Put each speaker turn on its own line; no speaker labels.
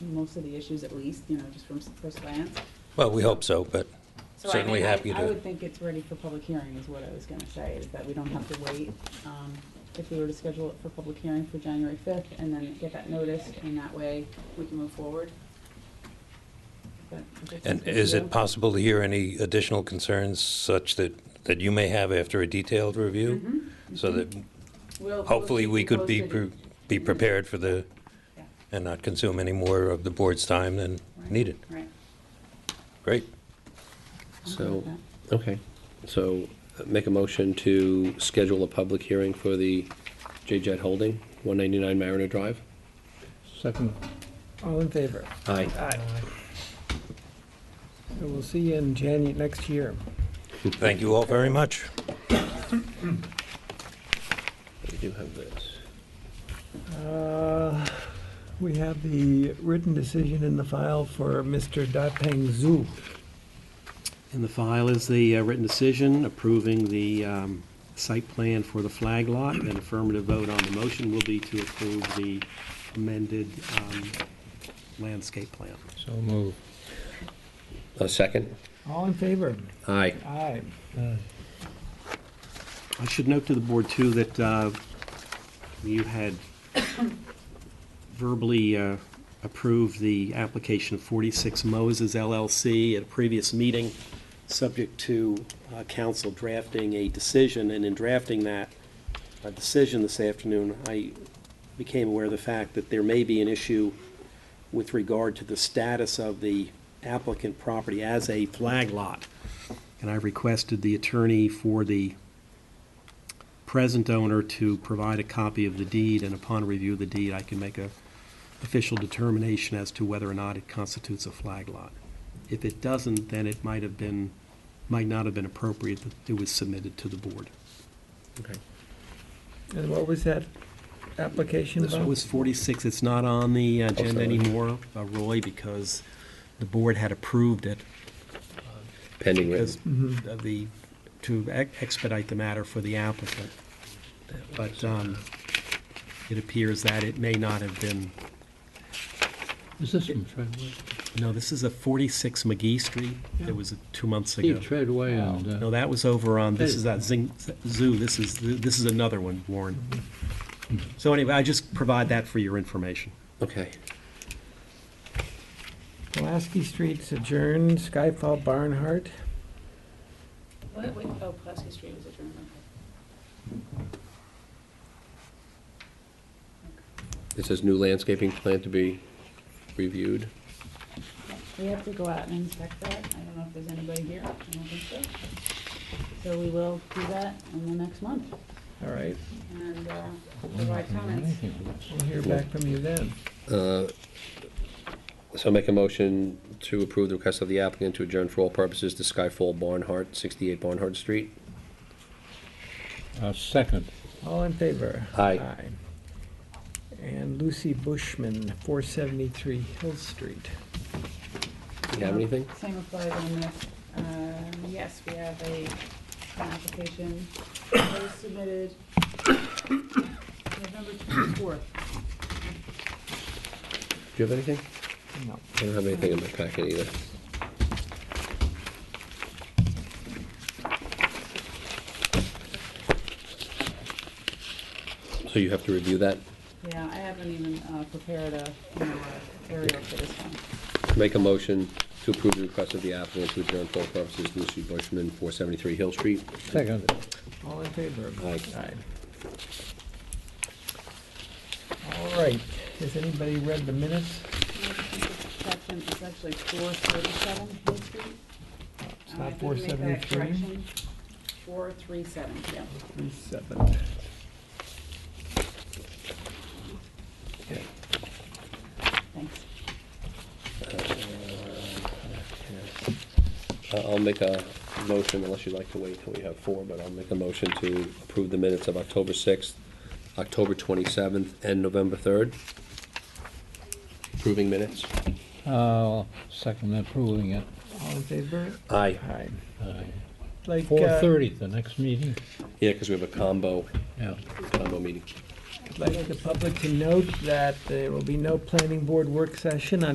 most of the issues at least, you know, just from s- first glance.
Well, we hope so, but
So I-
certainly
I-
happy
I
to.
would think it's ready for public hearing is what I was gonna say, is that we don't have to wait. um, If we were to schedule it for public hearing for January fifth and then get that noticed, and that way we can move forward. But if it's
And
something
is
to
it
do-
possible to hear any additional concerns such that, that you may have after a detailed review?
Mhm.
So that
We'll- we'll
hopefully
keep
we
you
could be,
posted.
pre- be prepared for the,
Yeah.
and not consume any more of the board's time than
Right.
needed.
Right.
Great.
I'm good
So-
with that.
Okay, so uh, make a motion to schedule a public hearing for the J-Jet Holding, 199 Mariner Drive.
Second.
All in favor?
Aye.
Aye. So we'll see you in January next year.
Thank you all very much.
We do have this.
Uh, We have the written decision in the file for Mr. Dapeng Zhu.
In the file is the uh, written decision approving the um, site plan for the flag lot. An affirmative vote on the motion will be to approve the amended um, landscape plan.
So move.
A second?
All in favor?
Aye.
Aye.
I should note to the board, too, that uh, you had verbally uh, approved the application of 46 Moses LLC at a previous meeting, subject to uh, council drafting a decision, and in drafting that uh, decision this afternoon, I became aware of the fact that there may be an issue with regard to the status of the applicant property as a flag lot. And I requested the attorney for the present owner to provide a copy of the deed, and upon review of the deed, I can make a official determination as to whether or not it constitutes a flag lot. If it doesn't, then it might have been, might not have been appropriate that it was submitted to the board.
Okay.
And what was that application
This
about?
was 46, it's not on the agenda
sorry.
anymore, uh, Roy, because the board had approved it
Pending
because
written.
Mm-hmm.
of uh, the, to ex- expedite the matter for the applicant. But um, it appears that it may not have been
Is this from Treadway?
No, this is a 46 McGee Street. It was two months ago.
Steve Treadway and,
No,
uh,
that was over on, this is that Zing Zoo, this is, this is another one, Warren. So anyway, I just provide that for your information.
Okay.
Pulaski Street's adjourned, Skyfall Barnhart.
What, wait, oh, Pulaski Street was adjourned, okay.
It says new landscaping plan to be reviewed.
We have to go out and inspect that. I don't know if there's anybody here. I don't think so. So we will do that in the next month
All right,
and uh, provide comments.
we'll hear back from you then.
So make a motion to approve the request of the applicant to adjourn for all purposes to Skyfall Barnhart, 68 Barnhart Street.
uh, second.
All in favor?
Aye.
And Lucy Bushman, 473 Hill Street.
Do you have anything?
Same applies on this. Um, Yes, we have a, an application that was submitted November 24th.
Do you have anything?
No.
I don't have anything in my packet either. So you have to review that.
Yeah, I haven't even uh, prepared a, you know, a aerial for this one.
Make a motion to approve the request of the applicant to adjourn for all purposes Lucy Bushman, 473 Hill Street.
Second.
All in favor?
Aye.
Aye. All right, has anybody read the minutes?
Section is actually 437 Hill Street.
It's
Uh,
not
I did make that
473?
correction. 437, yeah.
Three seven.
Thanks.
I- Uh, I'll make a motion, unless you'd like to wait until we have four, but I'll make a motion to approve the minutes of October 6th, October 27th, and November 3rd. Approving minutes.
I'll second approving it.
All in favor?
Aye.
Aye.
Aye.
Like, uh,
4:30, the next meeting?
Yeah, because we have a combo,
Yeah.
combo meeting.
I'd like the public to note that there will be no planning board work session on